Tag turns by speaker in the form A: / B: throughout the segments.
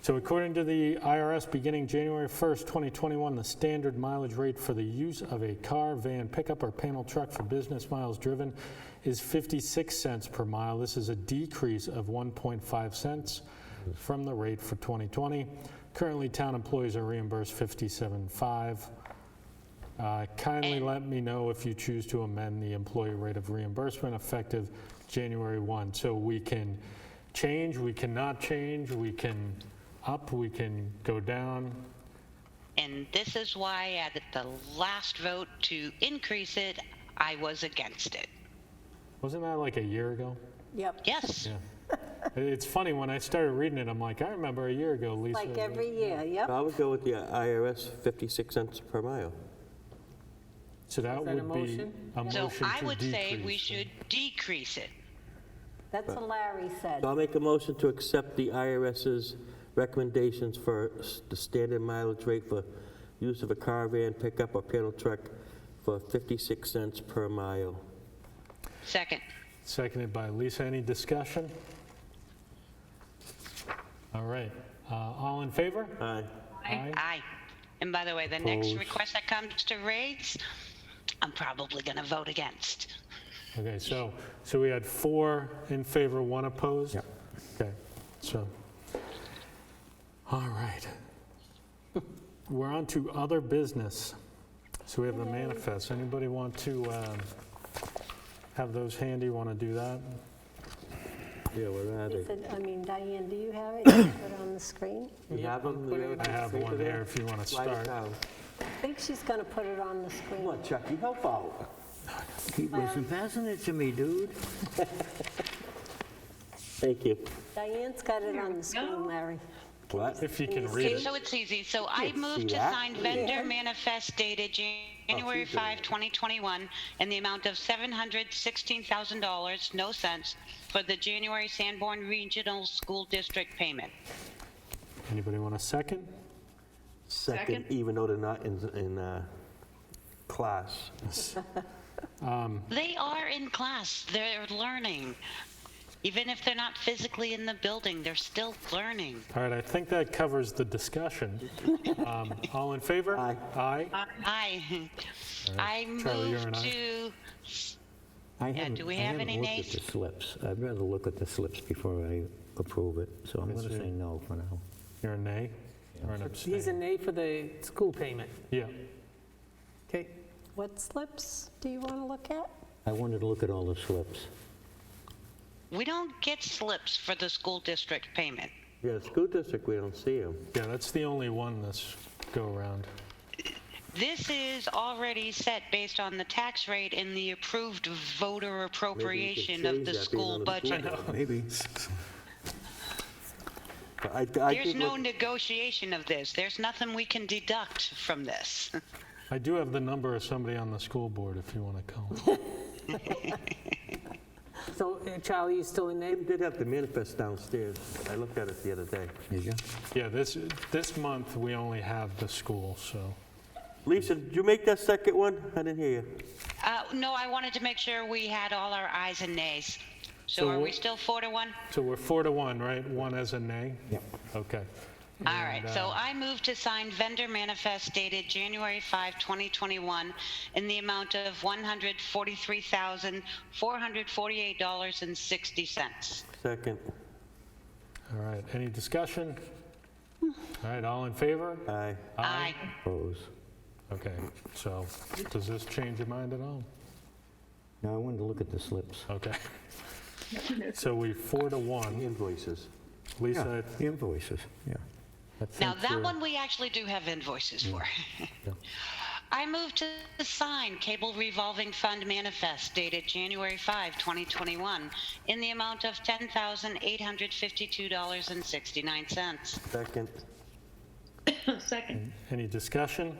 A: So according to the IRS, beginning January 1st, 2021, the standard mileage rate for the use of a car, van, pickup, or panel truck for business miles driven is 56 cents per mile. This is a decrease of 1.5 cents from the rate for 2020. Currently, town employees are reimbursed 57.5. Uh, Kindly let me know if you choose to amend the employee rate of reimbursement effective January 1. So we can change, we cannot change, we can up, we can go down.
B: And this is why at the last vote to increase it, I was against it.
A: Wasn't that like a year ago?
C: Yep,
B: Yes,
A: It's funny, when I started reading it, I'm like, I remember a year ago, Lisa.
C: like every year, yep.
D: I would go with the IRS, 56 cents per mile.
A: So that
E: Is that a
A: would be
E: motion?
A: a motion to
B: so
A: decrease.
B: I would say we should decrease it.
C: That's what Larry said.
D: So I'll make a motion to accept the IRS's recommendations for s- the standard mileage rate for use of a car, van, pickup, or panel truck for 56 cents per mile.
B: Second,
A: Seconded by Lisa. Any discussion? All right. Uh, All in favor?
D: Aye.
A: Aye.
B: aye. And by the way, the next
A: Opposed.
B: request that comes to rates, I'm probably going to vote against.
A: Okay, so, so we had four in favor, one opposed? Yep. Okay, so, all right. We're on to other business. So we have the manifest. Anybody want to um, have those handy, want to do that?
D: Yeah, where are
C: He
D: they?
C: said, I mean, Diane, do you have it? Can you Put it on the screen?
D: You have them? You
A: I have
D: them
A: one
D: there?
A: here if you want to
D: Slide it
A: start.
D: down.
C: I think she's going to put it on the
D: Come
C: screen.
D: on, Chuck, you help out.
F: Keep listen, passing it to me, dude.
D: Thank you.
C: Diane's got it on the screen, Larry.
D: What?
A: If you can read
B: Okay,
A: it.
B: so it's easy. So I
D: Can't see
B: move to
D: that.
B: sign vendor manifest dated January 5, 2021, in the amount of $716,000, no cents, for the January Sanborn Regional School District payment.
A: Anybody want a second?
D: Second, even though they're not in, in uh, class.
B: They are in class, they're learning. Even if they're not physically in the building, they're still learning.
A: All right, I think that covers the discussion. Um, All in favor?
D: Aye.
A: Aye?
B: Aye. I
A: Charlie, you're
B: move
A: an aye.
B: to,
F: I
B: Yeah,
F: haven't-
B: do we have any
F: I haven't looked
B: nays?
F: at the slips. I'd rather look at the slips before I approve it, so I'm going to say no for now.
A: You're a nay? Or an
E: He's a
A: abstain?
E: nay for the school payment.
A: Yeah.
E: Okay.
C: What slips do you want to look at?
F: I wanted to look at all the slips.
B: we don't get slips for the school district payment.
D: Yeah, the school district, we don't see them.
A: Yeah, that's the only one this go-around.
B: This is already set based on the tax rate and the approved voter appropriation of
D: change
B: the
D: that being
B: school
D: under the school
B: budget.
F: Maybe.
D: But I- I
B: There's
D: think
B: no
D: what-
B: negotiation of this. There's nothing we can deduct from this.
A: I do have the number of somebody on the school board if you want to call.
E: So uh, Charlie, you still a nay?
D: They did have the manifest downstairs. I looked at it the other day.
F: Did you?
A: Yeah, this, this month, we only have the school, so.
D: Lisa, did you make that second one? I didn't hear you.
B: Uh, No, I wanted to make sure we had all our ayes and nays. So
A: So
B: are
A: what-
B: we still four to one?
A: So we're four to one, right? One as a nay?
F: Yep.
A: Okay.
B: All right,
A: And,
B: so
A: uh,
B: I move to sign vendor manifest dated January 5, 2021, in the amount of $143,448.60.
D: Second.
A: All right, any discussion? All right, all in favor?
D: Aye.
B: Aye.
F: Oppose.
A: Okay, so does this change your mind at all?
F: No, I wanted to look at the slips.
A: Okay. So we four to one.
D: Invoices.
F: Yeah,
A: Lisa,
F: the invoices, yeah. I
B: Now,
F: think, uh,
B: that one we actually do have invoices for.
A: Mm.
B: I move to sign Cable Revolving Fund manifest dated January 5, 2021, in the amount of $10,852.69.
D: Second.
A: any discussion?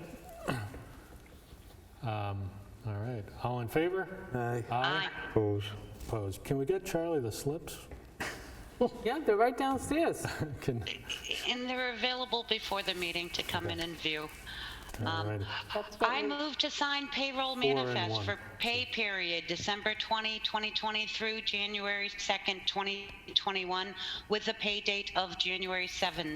A: Um, All right, all in favor?
D: Aye.
B: Aye.
F: Oppose.
A: Opposed. Can we get Charlie the slips?
E: Yeah, they're right downstairs.
A: Can,
B: And they're available before the meeting to come in and view.
A: all right.
C: That's what
B: I
C: we-
B: move to sign payroll
A: and
B: manifest
A: one.
B: for pay period December 20, 2020 through January 2nd, 2021, with a pay date of January 7,